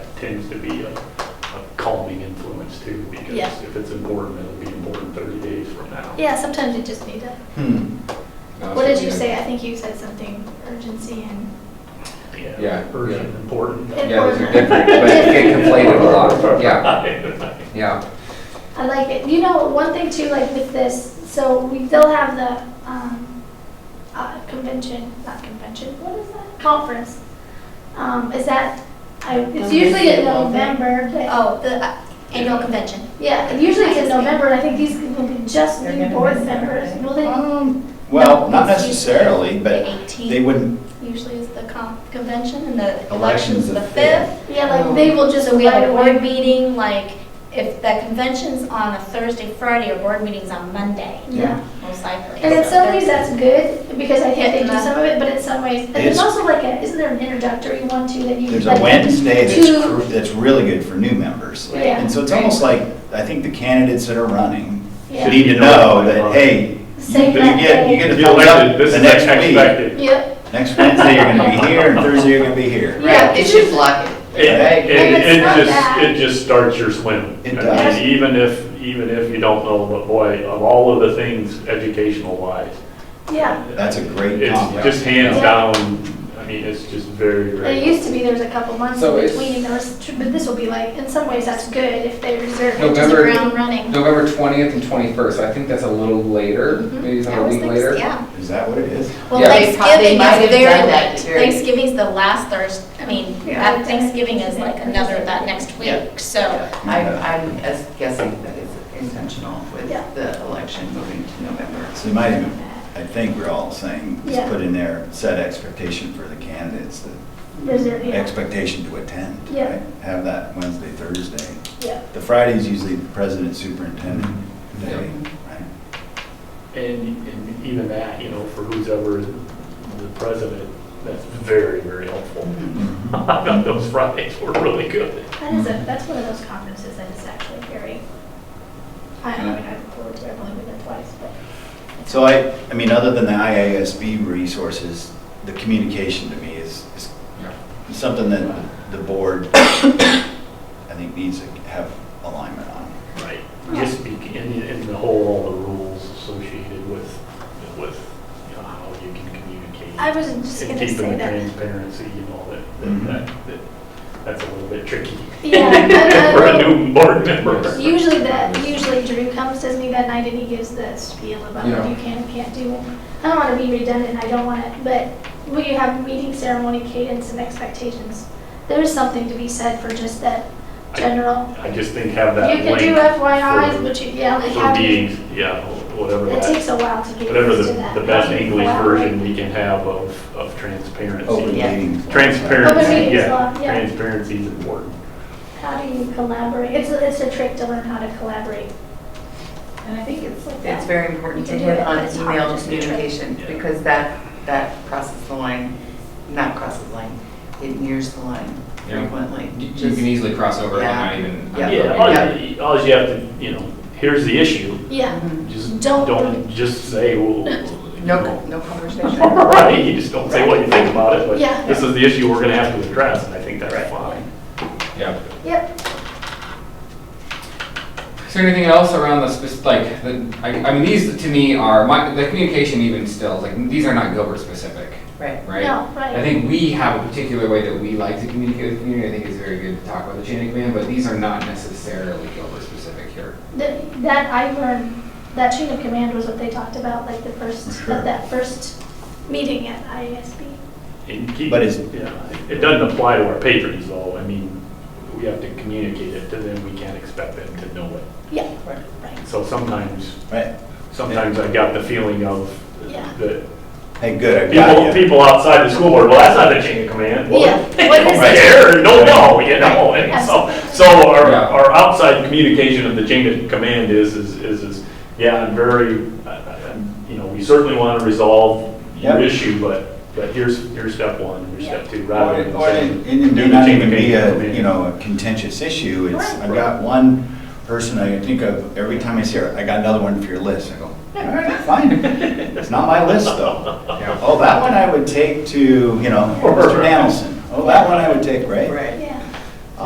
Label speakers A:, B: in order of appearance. A: tends to be a a calming influence too, because
B: Yeah.
A: if it's important, it'll be important 30 days from now.
B: Yeah, sometimes you just need to,
C: Hmm. No,
B: what did you
C: so-
B: say? I think you said something urgency and,
C: Yeah,
A: Urgent, important.
C: Yeah, those are different, but get conflated a lot, yeah, yeah.
B: I like it. You know, one thing too, like with this, so we, they'll have the, um, uh, convention, not convention, what is that? Conference. Um, is that, I, it's
D: Don't
B: usually
D: they
B: in
D: do all that?
B: November, but-
D: Oh, the uh, annual convention.
B: yeah, usually it's in
D: I see.
B: November, and I think these will be just
E: They're
B: new
E: gonna
B: board
E: miss that,
B: members.
E: right?
B: Will they,
D: Um,
C: Well, not
D: it's
C: necessarily,
D: usually
C: but
D: The
C: They
D: 18th
C: wouldn't,
D: usually is the con- convention, and the
C: Election's
D: election's
C: the
D: the 5th.
B: yeah, like,
C: Oh.
B: they will just.
D: So we have
B: right
D: a
B: away-
D: board meeting, like, if the convention's on a Thursday, Friday, our board meeting's on Monday,
B: Yeah.
D: most likely.
B: And in
D: So
B: some ways,
D: there's-
B: that's good, because I think they do
D: Yeah.
B: some of it, but in some ways, and there's
F: It's-
B: also like a, isn't there an introductory one too that you?
F: There's
B: like,
F: a Wednesday that's,
B: to-
F: cr- that's really good for new members.
B: Yeah.
F: And so it's almost like, I think the candidates that are running
B: Yeah.
F: need to know that, hey, you
B: Save that
F: get,
B: day.
F: you get a
A: If you
F: thumbs
A: elected,
F: up
A: this
F: the
A: is
F: next week.
A: expected.
B: Yep,
F: Next Wednesday, you're gonna be here, and Thursday, you're gonna be here.
B: yeah.
E: They should block it.
A: It,
F: Right.
B: And
A: it,
B: it's
A: it
B: not
A: just,
B: bad.
A: it just starts your swim.
F: It
A: I
F: does.
A: mean, Even if, even if you don't know, but boy, of all of the things educational wise.
B: Yeah,
F: That's a great
A: It's
F: combo.
A: just hands
B: Yeah.
A: down, I mean, it's just very,
B: and it
A: very.
B: used to be there was a couple months
C: So
B: in
C: it's-
B: between, there was, tr- but this will be like, in some ways, that's good if they reserve it.
D: Just
C: November-
D: ground running.
C: November 20th and 21st, I think that's a little later, maybe it's
D: I
C: like a
D: was
C: week
D: thinking-
C: later.
D: Yeah.
F: Is that what it is?
D: Well,
C: Yeah.
E: They prob- they
D: Thanksgiving
E: might
D: is
E: have
D: very
E: done that
D: late.
E: to very-
D: Thanksgiving's the last Thursday, I mean,
B: Yeah.
D: that Thanksgiving is like another, that next
E: Yeah.
D: week, so.
E: I'm, I'm as- guessing that it's intentional with
B: Yeah.
E: the election moving to November.
F: So you might even, I think we're all saying,
B: Yeah.
F: just put in there, set expectation for the candidates, the
B: Reserve, yeah,
F: expectation to attend.
B: Yeah.
F: right? Have that Wednesday, Thursday.
B: yeah.
F: The Friday's usually the president superintendent day, right?
A: And, and even that, you know, for who's ever the president, that's very, very helpful. I thought those Fridays were really good.
B: That is
F: Mm-hmm.
B: a, that's one of those conferences that is actually very, I I mean, I look forward to it, I've only been there twice, but,
F: So I, I mean, other than the IASB resources, the communication to me is, is something that the board, I think, needs to have alignment on.
A: Right. Just be, in, in the whole, all the rules associated with, with, you know, how you can communicate.
B: I was just
A: And
B: gonna say
A: keeping the
B: that.
A: transparency and all that,
F: Mhm.
A: that, that, that's a little bit tricky.
B: Yeah, I- I-
A: For a new board member.
B: Usually that, usually Drew comes to me that night and he gives the spiel about
C: Yeah.
B: what you can and can't do. I don't want to be redundant, I don't want to, but when you have meeting ceremony cadence and expectations, there is something to be said for just that
A: I-
B: general.
A: I just think have that
B: You
A: link.
B: can do FYIs,
A: for-
B: but you, yeah, like
A: For
B: have, it
A: meetings, yeah, whatever
B: it takes
A: that,
B: a while to get
A: whatever
B: used
A: the,
B: to that.
A: the best
B: Yeah.
A: English
B: Wow.
A: version we can have of, of
F: Open
A: transparency.
E: Oh, Yeah.
F: meetings.
B: Open
A: Transparency,
B: meetings law,
A: yeah,
B: yeah.
A: transparency is important.
B: How do you collaborate? It's, a- it's a trick to learn how to collaborate.
E: And I think it's,
B: like
E: it's
B: that.
E: very important to
B: You can
E: hit
B: do it,
E: on
B: but it's hard
E: email
B: just to
E: communication
A: Yeah.
E: because that, that crosses the line, not crosses the line, it nears the line
C: Yeah.
E: frequently.
G: You you
E: Just-
G: can e- easily cross over and
E: Yeah.
G: not even.
E: Yeah.
A: Yeah, all you, all you have to, you know, here's the issue,
B: Yeah,
E: Mhm.
A: just
B: Don't-
A: don't just say, well, you
E: No,
A: know.
E: no conversation.
A: Right, you just don't say what you think about it, but
B: Yeah.
A: this is the issue we're gonna have to address, and I think that's fine.
G: Yeah.
B: yep,
G: Is there anything else around the spec, like, the, I, I mean, these to me are, my, the communication even still, like, these are not Gilbert specific,
E: Right.
G: right?
B: No, right.
G: I think we have a particular way that we like to communicate with the community, I think it's very good to talk about the chain of command, but these are not necessarily Gilbert specific here.
B: Th- That I learned, that chain of command was what they talked about, like the first,
F: Sure.
B: at that first meeting at IASB.
A: And keep,
F: But it's-
A: yeah, it doesn't apply to our patrons, though, I mean, we have to communicate it to them, we can't expect them to know it.
B: Yeah,
E: Right.
B: right.
A: So sometimes,
F: Right.
A: sometimes I got the feeling of
B: Yeah.
A: that
F: Hey, good, I
A: people,
F: got you.
A: people outside the school board, well, that's not the chain of command. Well,
B: Yeah, what
A: don't
B: is it?
A: care or don't know, you know, and so, so our,
G: Yeah.
A: our outside communication of the chain of command is, is, is, is, yeah, I'm very, I- I- I'm, you know, we certainly want to resolve your
F: Yep.
A: issue, but, but here's, here's step one, here's step two,
F: Or
A: rather
F: it
A: than
F: or it-
A: saying.
F: and it
A: do
F: may
A: the
F: not
A: chain
F: even
A: of
F: be a,
A: command.
F: uh, you know, a contentious issue, it's,
B: Right.
F: I've got one person I think of, every time I see her, I got another one for your list, I go, all right, fine. It's not my list, though.
G: Yeah.
F: Oh, that one I would take to, you know, Mr. Danielson. Oh, that one I would take, right?
E: Right.